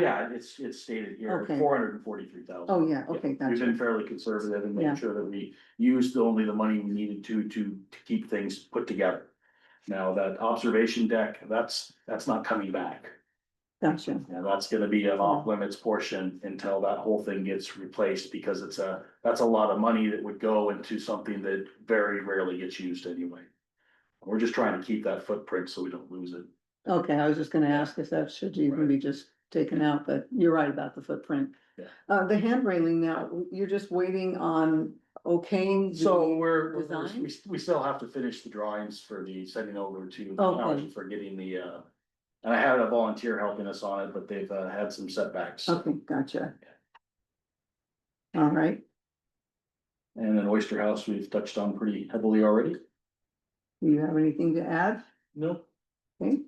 Yeah, it's, it's stated here, Okay. four hundred and forty-three thousand. Oh, yeah, okay, We've gotcha. been fairly conservative in Yeah. making sure that we used only the money we needed to, to, to keep things put together. Now, that observation deck, that's, that's not coming back. Gotcha. Now, that's gonna be an off limits portion until that whole thing gets replaced, because it's a, that's a lot of money that would go into something that very rarely gets used anyway. We're just trying to keep that footprint so we don't lose it. Okay, I was just gonna ask if that should even be just taken out, but you're right about the footprint. Yeah. Uh, the hand railing now, you're just waiting on okaying. the- So we're, we're- design? we, we still have to finish the drawings for the sending over to, Okay. for getting the, uh. And I had a volunteer helping us on it, but they've uh, had some setbacks Okay, gotcha. All right, and then Oyster House, we've touched on pretty heavily already. do you have anything to add, No. Okay.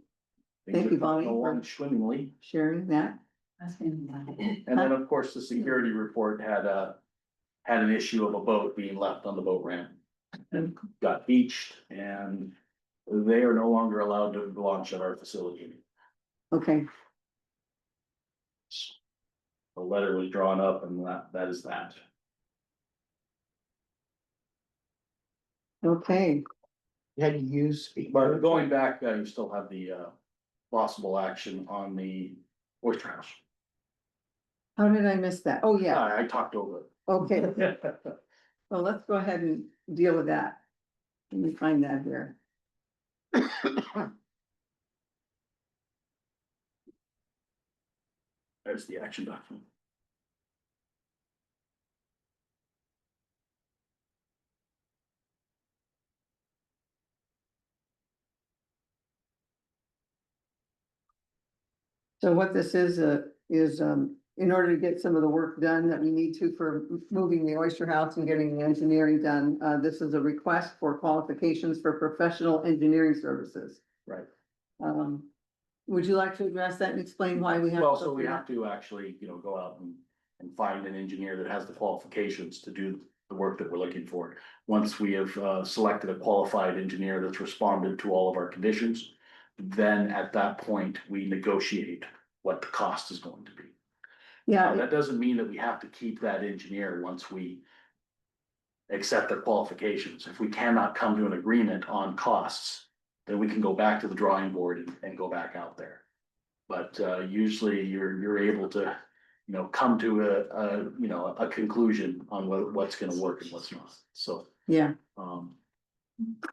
Thank you, Bonnie, for- Along swimmingly. sharing that? And then, of course, the security report had a, had an issue of a boat being left on the boat ramp. And Mm. got beached and they are no longer allowed to launch at our facility. Okay, The letter was drawn up and that, that is that. okay, You had to use. speak- But going back, uh, you still have the, uh, possible action on the oyster house. how did I miss that? Oh, yeah, I I talked over okay. it. Well, let's go ahead and deal with that. Let me find that here. There's the action document. So what this is, uh, is, um, in order to get some of the work done that we need to for moving the oyster house and getting the engineering done, uh, this is a request for qualifications for professional engineering services. Right. Um, would you like to address that and explain why we have? Well, to so go we through have to actually, you know, go out and, and find an engineer that has the qualifications to do the work that we're looking for. Once we have, uh, selected a qualified engineer that's responded to all of our conditions, then at that point, we negotiate what the cost is going to be. that? Now, Yeah, that doesn't mean that we have to keep that engineer once we accept their qualifications. If we cannot come to an agreement on costs, then we can go back to the drawing board and, and go back out there. But, uh, usually you're, you're able to, you know, come to a, a, you know, a conclusion on what, what's gonna work and what's not, so. yeah, Um,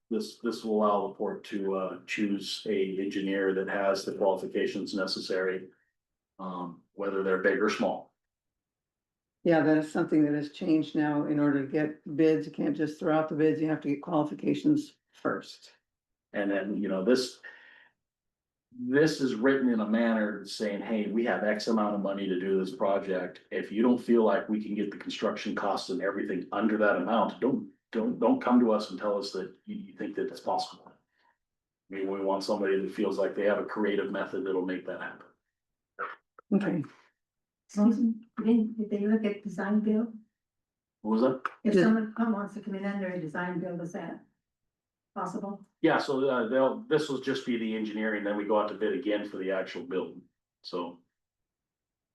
this, this will allow the port to, uh, choose a engineer that has the qualifications necessary. Um, whether they're big or small. yeah, that is something that has changed now in order to get bids. You can't just throw out the bids. You have to get qualifications first. And then, you know, this. This is written in a manner saying, hey, we have X amount of money to do this project. If you don't feel like we can get the construction costs and everything under that amount, don't, don't, don't come to us and tell us that you, you think that it's possible. I mean, we want somebody that feels like they have a creative method that'll make that happen. Okay, So then, if they look at design build, What was that? if Yeah. someone come wants to come in under a design build, is that possible? Yeah, so uh, they'll, this will just be the engineering, then we go out to bid again for the actual build, so.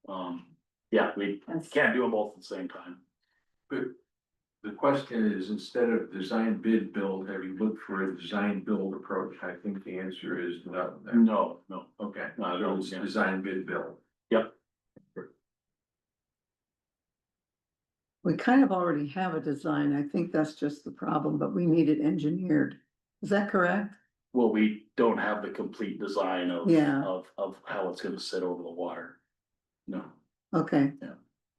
Um, yeah, we That's- can't do them both at the same time. The question is, instead of design bid build, have you looked for a design build approach? I think the answer is no. No, no, Okay, no, I so don't, it's yeah. design bid build. we kind of already have a design. I think that's just the problem, but we need it engineered. Is that correct? well, we don't have the complete design of, Yeah. of, of how it's gonna sit over the water. No, Okay,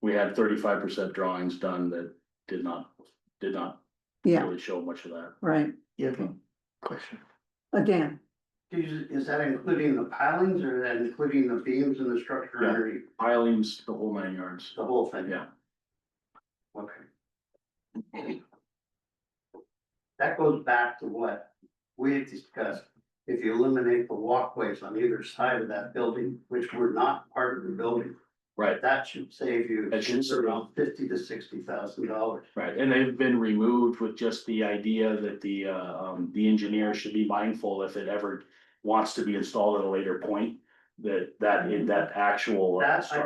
we had thirty-five percent drawings done that did not, did not yeah, really show much of that. right. Yeah, but question. Again, Is, is that including the pilings or is that including the beams and the structure Yeah. underneath, Pilings, the whole nine yards, the whole thing? yeah, Okay. That goes back to what we had discussed. If you eliminate the walkways on either side of that building, which were not part of the building, right, that should save you That should save- around fifty to sixty thousand dollars. right, and they've been removed with just the idea that the, uh, um, the engineer should be mindful if it ever wants to be installed at a later point, that, that, that actual. uh, That I